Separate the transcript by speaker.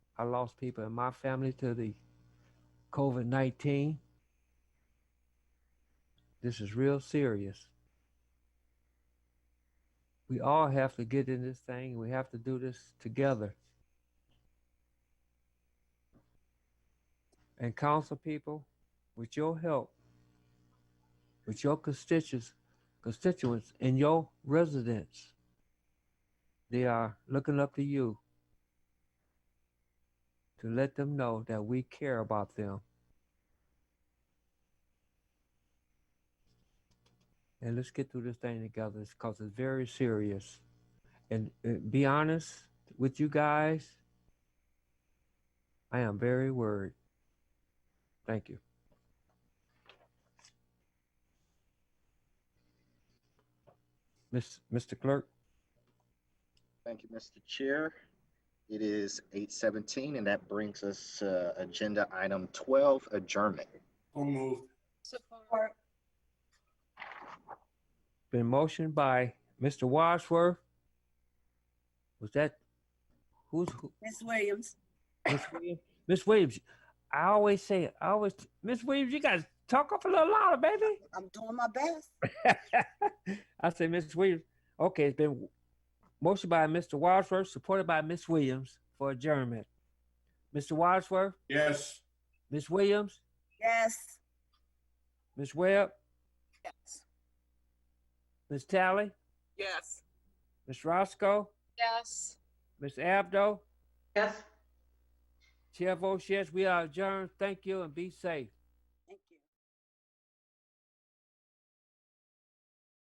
Speaker 1: I lost people in my family to the COVID 19. This is real serious. We all have to get in this thing. We have to do this together. And council people, with your help, with your constituents, constituents and your residents, they are looking up to you to let them know that we care about them. And let's get through this thing together because it's very serious. And uh, be honest with you guys, I am very worried. Thank you. Miss, Mr. Clerk?
Speaker 2: Thank you, Mr. Chair. It is eight seventeen, and that brings us to agenda item twelve, adjournment.
Speaker 3: So moved.
Speaker 4: Support.
Speaker 1: Been motioned by Mr. Wadsworth. Was that, who's, who,
Speaker 4: Ms. Williams.
Speaker 1: Miss Williams? Miss Williams, I always say, I always, Miss Williams, you guys talk up a little louder, baby.
Speaker 4: I'm doing my best.
Speaker 1: I say, Miss Williams, okay, it's been motioned by Mr. Wadsworth, supported by Miss Williams for adjournment. Mr. Wadsworth,
Speaker 3: Yes.
Speaker 1: Miss Williams,
Speaker 4: Yes.
Speaker 1: Miss Webb,
Speaker 4: Yes.
Speaker 1: Miss Tally,
Speaker 4: Yes.
Speaker 1: Miss Roscoe,
Speaker 4: Yes.
Speaker 1: Miss Abdo.
Speaker 5: Yes.
Speaker 1: Chair votes yes, we are adjourned. Thank you and be safe.